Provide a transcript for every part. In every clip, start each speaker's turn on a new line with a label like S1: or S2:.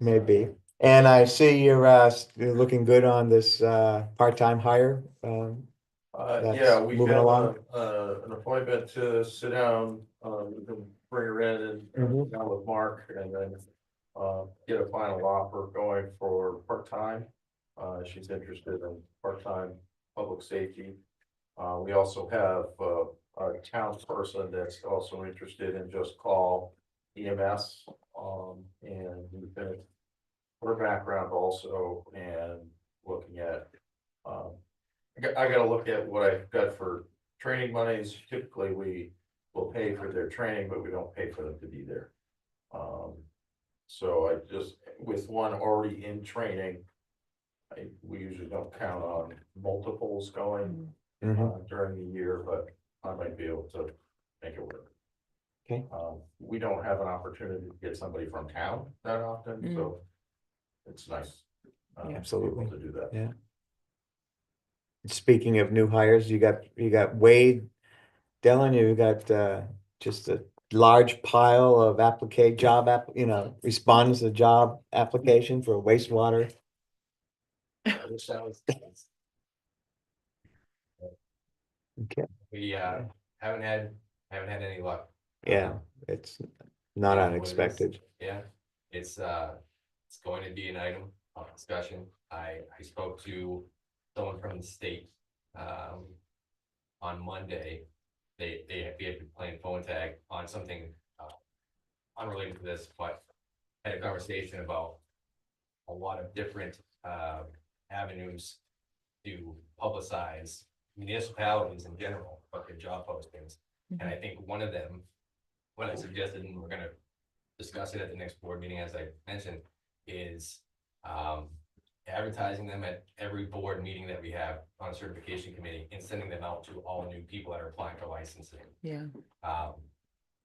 S1: Maybe. And I see you're, uh, s- you're looking good on this, uh, part-time hire. Um,
S2: Uh,
S1: That's
S2: yeah, we
S1: moving
S2: have a,
S1: along.
S2: uh, an appointment to sit down, um, we can bring her in and
S1: Mhm.
S2: down with Mark and then. Uh, get a final offer going for part-time, uh, she's interested in part-time public safety. Uh, we also have, uh, a townsperson that's also interested in just call EMS, um, and we've been. Her background also and looking at, um, I got, I gotta look at what I've got for training monies, typically we will pay for their training, but we don't pay for them to be there. Um, so I just, with one already in training. I, we usually don't count on multiples going
S3: Mm-hmm.
S1: mhm.
S2: uh, during the year, but I might be able to make it work.
S1: Okay.
S2: Um, we don't have an opportunity to get somebody from town that often, so it's nice. uh, to be able
S1: Absolutely.
S2: To do that.
S1: Speaking of new hires, you got, you got Wade Dillon, you got, uh, just a large pile of applica- job app, you know, respondents to job application for wastewater.
S3: I wish that was.
S1: Okay.
S3: We uh haven't had, haven't had any luck.
S1: Yeah, it's not
S3: Yeah, what it is.
S1: unexpected.
S3: Yeah, it's uh, it's going to be an item of discussion. I I spoke to someone from the state. Um, on Monday, they they had, we had been playing phone tag on something uh. Unrelated to this, but had a conversation about a lot of different uh avenues to publicize municipalities in general, but their job postings. And I think one of them, what I suggested, and we're gonna discuss it at the next board meeting, as I mentioned, is um advertising them at every board meeting that we have on a certification committee and sending them out to all new people that are applying for licensing.
S4: Yeah,
S3: Um,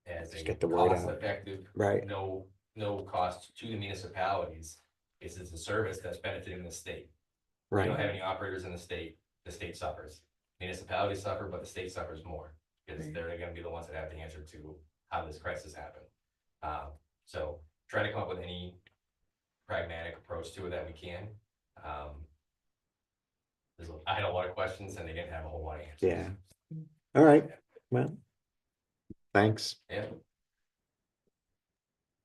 S3: as
S1: Just
S3: a
S1: get the word out.
S3: cost effective
S1: Right,
S3: no, no cost to the municipalities. This is a service that's benefiting the state. We don't
S1: right.
S3: have any operators in the state, the state suffers. Municipalities suffer, but the state suffers more. Because
S4: Right.
S3: they're gonna be the ones that have to answer to how this crisis happened. Um, so try to come up with any pragmatic approach to it that we can. Um. There's, a- I had a lot of questions and they didn't have a whole lot of answers.
S1: Yeah. All right, well, thanks.
S3: Yeah,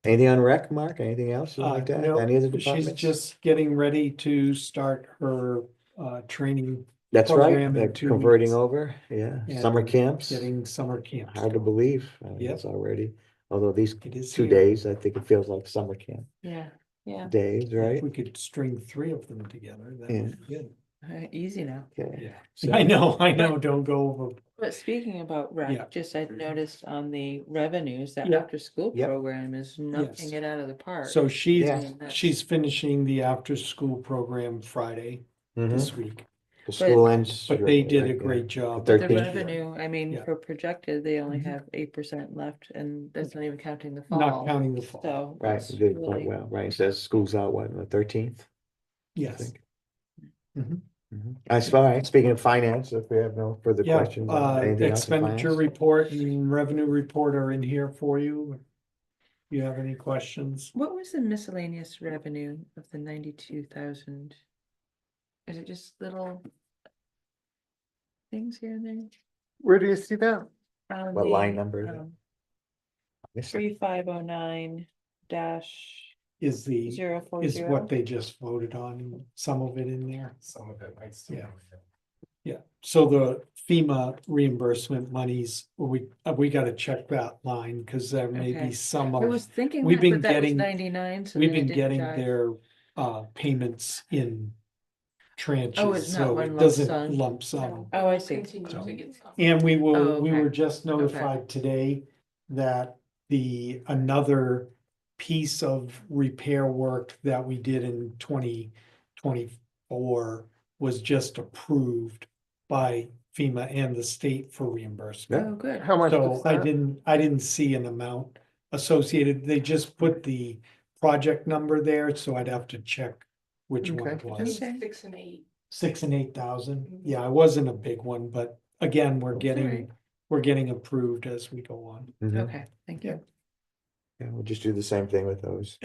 S1: Anything on rec, Mark? Anything else you'd
S5: Uh,
S1: like to add?
S5: no,
S1: Any other
S5: She's
S1: departments?
S5: just getting ready to start her uh training,
S1: That's right,
S5: program in
S1: they're
S5: two
S1: converting
S5: weeks.
S1: over, yeah,
S5: Yeah,
S1: summer camps,
S5: getting summer camp.
S1: hard to believe, I mean,
S5: Yep.
S1: it's already, although these
S5: It is.
S1: two
S5: here.
S1: days, I think it feels like summer camp
S4: yeah, yeah,
S1: days, right?
S5: If we could string three of them together, that
S1: Yeah.
S5: would be good.
S4: uh, easy now.
S1: Okay,
S5: Yeah, I know, I know, don't go over.
S4: But speaking about
S5: Yeah.
S4: rec, just I noticed on the revenues, that
S5: Yeah.
S4: after-school
S1: Mm-hmm. Yep.
S4: program is knocking
S5: Yes.
S4: it out of the park.
S5: So she's,
S1: Yeah.
S5: she's finishing the after-school program Friday
S1: mhm,
S5: this week,
S1: the school ends.
S5: but they
S1: shortly,
S5: did
S1: right,
S5: a
S1: yeah.
S5: great job.
S1: But
S4: The
S1: 13th.
S4: revenue, I mean,
S5: Yeah.
S4: for projected, they only
S5: Mhm.
S1: Mm-hmm.
S4: have eight percent left, and that's not even counting the
S5: Not
S4: fall,
S5: counting the fall,
S4: so.
S1: Right,
S4: it's
S1: you did quite
S4: really-
S1: well, right, it says school's out, what, on the thirteenth? Mm-hmm.
S5: yes. Mhm.
S1: I saw, all right, speaking of finance, if we have no further
S5: Yeah,
S1: questions. on
S5: uh,
S1: anything else in
S5: expenditure
S1: finance?
S5: report and revenue report are in here for you. You have any questions?
S4: What was the miscellaneous revenue of the ninety-two thousand? Is it just little things here and there?
S6: Where do you see that?
S4: On
S1: What line
S4: the,
S1: number is it?
S4: um,
S1: Missed it.
S4: Three five oh nine dash
S5: Is the,
S4: zero four
S5: is what
S4: zero.
S5: they just voted on, and some of it in there.
S3: some of it might still.
S5: Yeah. Yeah, so the FEMA reimbursement monies, we, uh, we gotta check that line, cause there may
S4: Okay.
S5: be some
S4: I was
S5: of,
S4: thinking
S5: we've
S4: that,
S5: been
S4: but that was
S5: getting-
S4: ninety-nine, so
S5: we've
S4: then I
S5: been
S4: didn't
S5: getting
S4: dive.
S5: their uh, payments in
S4: Oh, not
S5: tranches, so
S4: one
S5: it
S4: lump
S5: doesn't
S4: sum.
S5: lump sum.
S4: Oh, I see.
S5: And we
S4: Oh,
S5: will, we
S4: okay.
S5: were just notified today that the, another piece of repair work that we did in twenty twenty-four was just approved by FEMA and the state for reimbursement.
S4: Oh, good.
S6: How much?
S5: So
S6: is
S5: I
S6: that?
S5: didn't, I didn't see an amount associated, they just put the project number there, so I'd have to check which one it
S6: Okay.
S5: was.
S4: Okay.
S7: Six and eight.
S5: Six and eight thousand, yeah, it wasn't a big one, but again, we're
S4: right.
S5: getting, we're getting approved as we go on.
S1: Mhm.
S4: Okay, thank you.
S1: Yeah, we'll just do the same thing with those.